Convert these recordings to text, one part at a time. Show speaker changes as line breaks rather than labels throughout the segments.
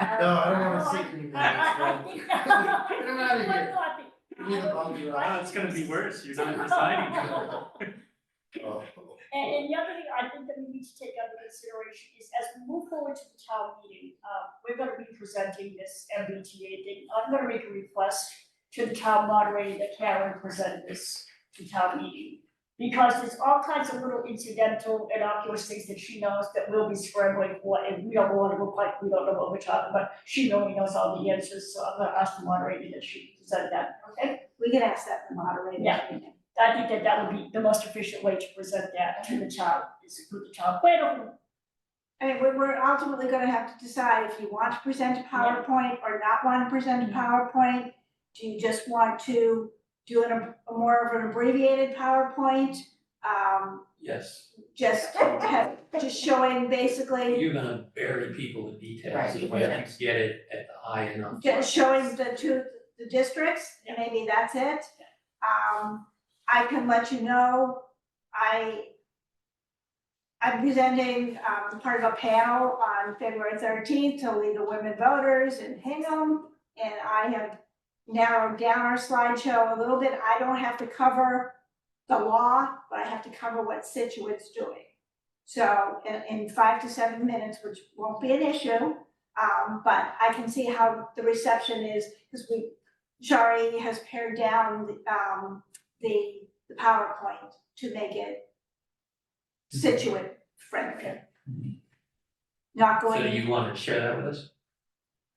I-
No, I don't wanna
no,
sit
I-
in your
I-
minutes,
I- I-
Get 'em outta
One
here.
copy.
We need a bundle.
Right?
Oh, it's gonna be worse, you're not deciding.
Oh.
And, and the other thing I think that we need to take under consideration is as we move forward to the town meeting, uh, we're gonna be presenting this MBTA thing. I'm gonna make a request to the town moderator that Karen present this to town meeting. Because there's all kinds of little incidental innocuous things that she knows that we'll be scrambling for, and we don't wanna look like we don't know what we're talking about. She only knows all the answers, so I'm gonna ask the moderator that she present that, okay?
We could ask that the moderator.
Yeah. I think that that would be the most efficient way to present that to the child, is through the child plan of-
I mean, we're, we're ultimately gonna have to decide if you want to present a PowerPoint or not want to present a PowerPoint. Do you just want to do an, ab- a more of an abbreviated PowerPoint? Um,
Yes,
just have, just showing basically,
you're gonna bury people in details,
Right,
if you
yeah.
get it at the high enough.
just showing the two, the districts, and maybe that's it. Um, I can let you know, I, I'm presenting, um, part of a panel on February thirteenth to lead the women voters in Hingham. And I have narrowed down our slideshow a little bit, I don't have to cover the law, but I have to cover what Situate's doing. So, in, in five to seven minutes, which won't be an issue, um, but I can see how the reception is, because we, Shari has pared down, the, um, the, the PowerPoint to make it Situate friendly. Not
So
going,
you wanna share that with us?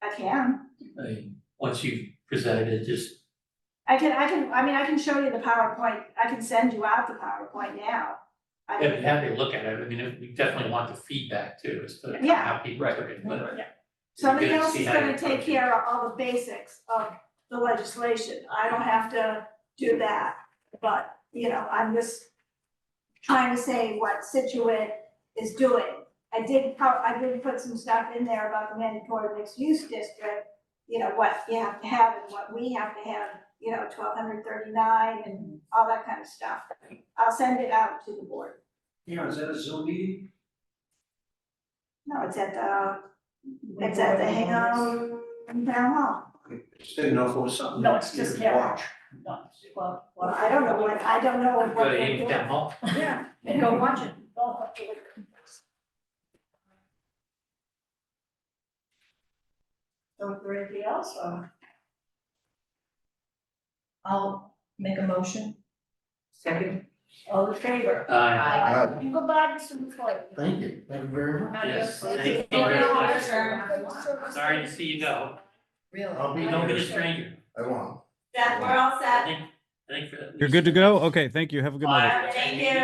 I can,
I mean, once you've presented it, just,
I can, I can, I mean, I can show you the PowerPoint, I can send you out the PowerPoint now. I
I'd be
can-
happy to look at it, I mean, we definitely want the feedback too, as to
Yeah.
how people took it, but.
Somebody
You're gonna
else
see
is
how you
gonna take
approach it.
care of all the basics of the legislation, I don't have to do that, but, you know, I'm just trying to say what Situate is doing. I did, pro- I did put some stuff in there about the mandatory mixed use district, you know, what you have to have and what we have to have, you know, twelve hundred thirty-nine and all that kind of stuff. I'll send it out to the board,
Yeah, is that a Zoom meeting?
no, it's at the, it's at the Hingham Town Hall.
Just didn't know if it was something.
No, it's just
you could
there.
watch.
No, well, well,
Well, I don't know what, I don't know what
Go to
they
Ames
do.
Town Hall,
Yeah,
And go watch it. Go watch it. So, is there anything else, or?
I'll make a motion. Second.
All in favor?
uh,
Aye.
Goodbye, Mr. McCoy.
Thank you, thank you very much.
yes,
Adios.
thank you very much,
much.
sorry to see you go,
Really?
I'll be
don't be a stranger,
I won't.
that, we're all set.
I think, I think for.
You're good to go? Okay, thank you. Have a good night.
Bye.
Thank you.